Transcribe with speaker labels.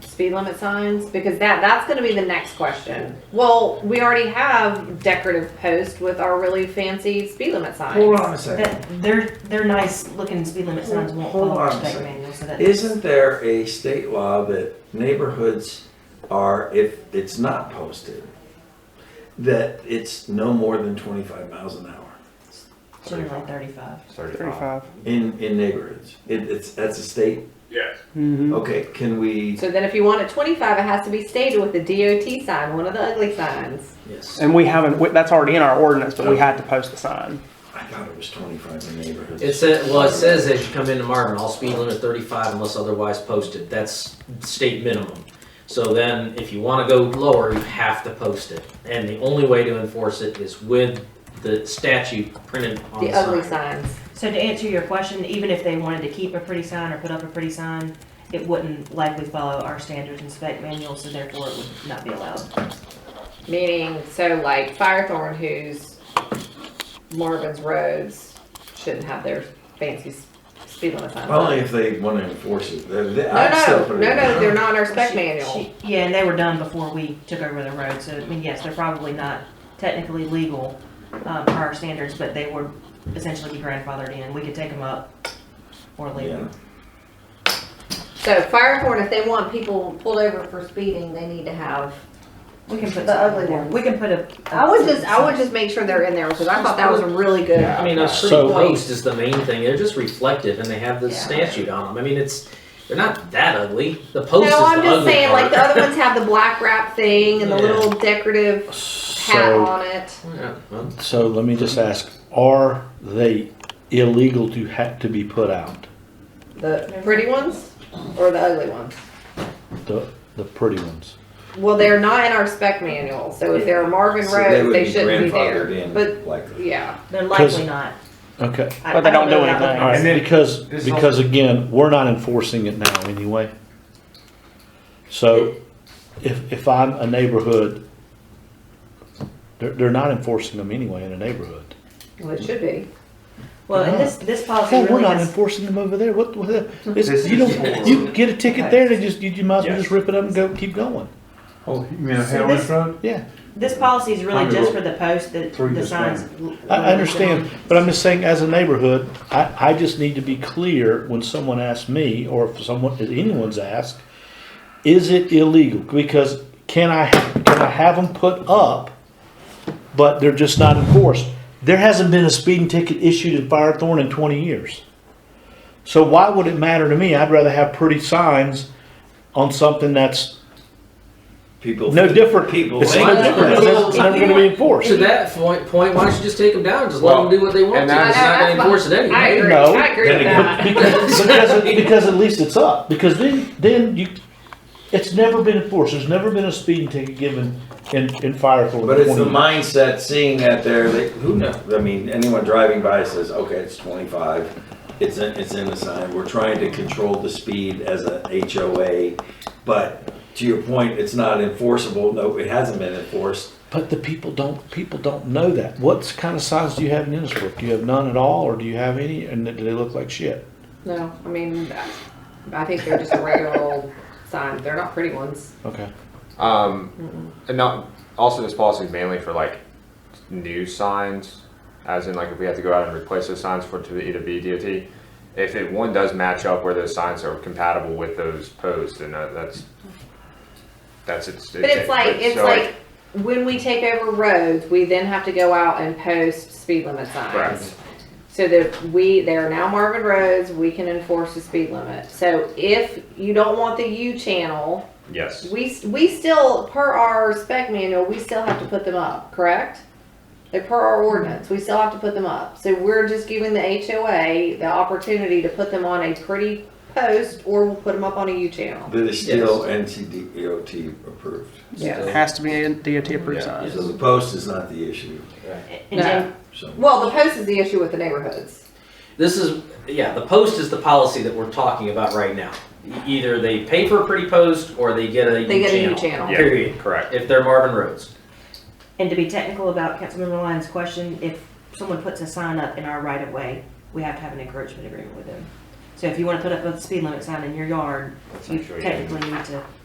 Speaker 1: speed limit signs? Because that, that's gonna be the next question. Well, we already have decorative posts with our really fancy speed limit
Speaker 2: Hold
Speaker 1: signs.
Speaker 2: on a second.
Speaker 3: That, they're, they're nice looking speed limit signs won't
Speaker 2: Hold
Speaker 3: follow our
Speaker 2: on a
Speaker 3: state
Speaker 2: second.
Speaker 3: manual, so that.
Speaker 2: Isn't there a state law that neighborhoods are, if it's not posted, that it's no more than twenty-five miles an hour
Speaker 3: Should've been like thirty-five.
Speaker 4: Thirty-five.
Speaker 2: in, in neighborhoods? It, it's, that's a state?
Speaker 5: Yes.
Speaker 4: Mm-hmm.
Speaker 2: Okay, can we?
Speaker 1: So then if you want a twenty-five, it has to be stated with a DOT sign, one of the ugly signs.
Speaker 2: Yes.
Speaker 4: And we haven't. we- That's already in our ordinance, but we had to post the sign.
Speaker 2: I thought it was twenty-five in neighborhoods.
Speaker 6: It says, well, it says as you come into Marvin, all speed limit thirty-five unless otherwise posted. That's state minimum. So then, if you wanna go lower, you have to post it. And the only way to enforce it is with the statute printed on
Speaker 1: The
Speaker 6: the
Speaker 1: ugly
Speaker 6: sign.
Speaker 1: signs.
Speaker 3: So to answer your question, even if they wanted to keep a pretty sign or put up a pretty sign, it wouldn't likely follow our standards and spec manual, so therefore it would not be allowed.
Speaker 1: Meaning, so like Firethorn, who's Marvin's Roads, shouldn't have their fancy s- speed limit signs.
Speaker 2: Only if they want to enforce it. They- they-
Speaker 1: No,
Speaker 2: I'd still
Speaker 1: no, no,
Speaker 2: put it in.
Speaker 1: no, they're not in our spec
Speaker 3: She-
Speaker 1: manual.
Speaker 3: she- Yeah, and they were done before we took over the road, so, I mean, yes, they're probably not technically legal, um, per our standards, but they would essentially be grandfathered in, we could take them up or leave them.
Speaker 1: So Firethorn, if they want people pulled over for speeding, they need to have.
Speaker 3: We can put
Speaker 1: The ugly
Speaker 3: something in there.
Speaker 1: one.
Speaker 3: We can put a.
Speaker 1: I would just, I would just make sure they're in there because I thought that was a really good.
Speaker 6: I mean, a street
Speaker 4: So-
Speaker 6: post is the main thing. They're just reflective and they have the
Speaker 3: Yeah.
Speaker 6: statute on them. I mean, it's, they're not that ugly. The post is the
Speaker 1: No, I'm
Speaker 6: ugly
Speaker 1: just saying, like the
Speaker 6: part.
Speaker 1: other ones have the black wrap thing and the
Speaker 6: Yeah.
Speaker 1: little decorative hat
Speaker 7: So,
Speaker 1: on it.
Speaker 6: Yeah, well,
Speaker 7: so let me just ask, are they illegal to have to be put out?
Speaker 1: The pretty ones or the ugly ones?
Speaker 7: The, the pretty ones?
Speaker 1: Well, they're not in our spec manual, so if they're Marvin
Speaker 2: So they
Speaker 1: Road,
Speaker 2: would
Speaker 1: they
Speaker 2: be
Speaker 1: shouldn't be there. But,
Speaker 2: grandfathered in, likely.
Speaker 1: yeah,
Speaker 3: They're
Speaker 7: 'Cause-
Speaker 3: likely not.
Speaker 7: Okay,
Speaker 3: I-
Speaker 4: But they
Speaker 3: I
Speaker 4: don't do
Speaker 3: know about
Speaker 4: anything.
Speaker 3: the-
Speaker 7: all right,
Speaker 5: And then-
Speaker 7: because,
Speaker 5: This
Speaker 7: because again, we're not enforcing it now anyway. So if, if I'm a neighborhood, they're, they're not enforcing them anyway in a neighborhood.
Speaker 1: well, it should be.
Speaker 3: Well, and this, this policy
Speaker 7: Well, we're
Speaker 3: really
Speaker 7: not
Speaker 3: has,
Speaker 7: enforcing them over there, what, what, the- it's,
Speaker 5: This
Speaker 7: you
Speaker 5: is
Speaker 7: don't,
Speaker 5: for-
Speaker 7: you get a ticket there, they just, you you might as well just rip it up and go, keep going,
Speaker 8: Oh, you mean a
Speaker 3: So
Speaker 8: Howard
Speaker 3: this-
Speaker 8: Road?
Speaker 7: yeah.
Speaker 3: this policy is really
Speaker 8: I'm
Speaker 3: just
Speaker 8: gonna
Speaker 3: for the post, the,
Speaker 8: through
Speaker 3: the
Speaker 8: this
Speaker 3: signs.
Speaker 7: I, I understand, but I'm just saying, as a neighborhood, I, I just need to be clear when someone asks me, or if someone, if anyone's asked, is it illegal? Because can I, can I have them put up, but they're just not enforced? There hasn't been a speeding ticket issued in Firethorn in twenty years. So why would it matter to me? I'd rather have pretty signs on something that's
Speaker 2: People.
Speaker 7: no different.
Speaker 2: People.
Speaker 7: It's no
Speaker 6: Well,
Speaker 7: different,
Speaker 6: well,
Speaker 7: it's never gonna be enforced.
Speaker 6: To that point, point, why don't you just take them down? and Just let
Speaker 5: Well,
Speaker 6: them do what they want
Speaker 5: and
Speaker 6: to.
Speaker 5: that's-
Speaker 6: It's not gonna enforce it anyway.
Speaker 1: I agree.
Speaker 7: No.
Speaker 1: I agree with
Speaker 2: Then
Speaker 1: that.
Speaker 7: because, because, because at least it's up. Because then, then you, it's never been enforced. There's never been a speeding ticket given in, in Firethorn.
Speaker 2: But it's the mindset, seeing that there, they, who knows? I mean, anyone driving by says, okay, it's twenty-five. It's in, it's in the sign. We're trying to control the speed as a HOA. But to your point, it's not enforceable. No, it hasn't been enforced.
Speaker 7: But the people don't, people don't know that. What kind of signs do you have in Innisbrook? Do you have none at all, or do you have any, and do they look like shit?
Speaker 1: No, I mean, I think they're just a regular old sign. They're not pretty ones.
Speaker 7: Okay.
Speaker 8: Um, and not, also this policy is mainly for like new signs, as in like if we have to go out and replace those signs for it to either be DOT. If it, one does match up where those signs are compatible with those posts, then that- that's, that's it's.
Speaker 1: But it's like, it's
Speaker 8: so,
Speaker 1: like, when we take over roads, we then have to go out and post speed limit signs.
Speaker 8: Right.
Speaker 1: So that we, they are now Marvin roads, we can enforce the speed limit. So if you don't want the U channel,
Speaker 8: Yes.
Speaker 1: we, we still, per our spec manual, we still have to put them up, correct? Like per our ordinance, we still have to put them up. So we're just giving the HOA the opportunity to put them on a pretty post or we'll put them up on a U channel.
Speaker 2: That is still NCDOT E approved.
Speaker 4: It has to be a DOT approved
Speaker 8: Yeah.
Speaker 4: sign.
Speaker 2: So the post is not the issue,
Speaker 3: And then-
Speaker 2: so.
Speaker 1: Well, the post is the issue with the neighborhoods.
Speaker 6: This is, yeah, the post is the policy that we're talking about right now. E- Either they pay for a pretty post or they get a
Speaker 1: They
Speaker 6: new
Speaker 1: get a
Speaker 6: channel.
Speaker 1: U channel.
Speaker 8: Yeah,
Speaker 6: Period.
Speaker 8: Correct.
Speaker 6: If they're Marvin Roads.
Speaker 3: and to be technical about Councilmember Lyons' question, if someone puts a sign up in our right of way, we have to have an encouragement agreement with them. So if you wanna put up a speed limit sign in your yard, you
Speaker 8: Make sure you-
Speaker 3: technically need to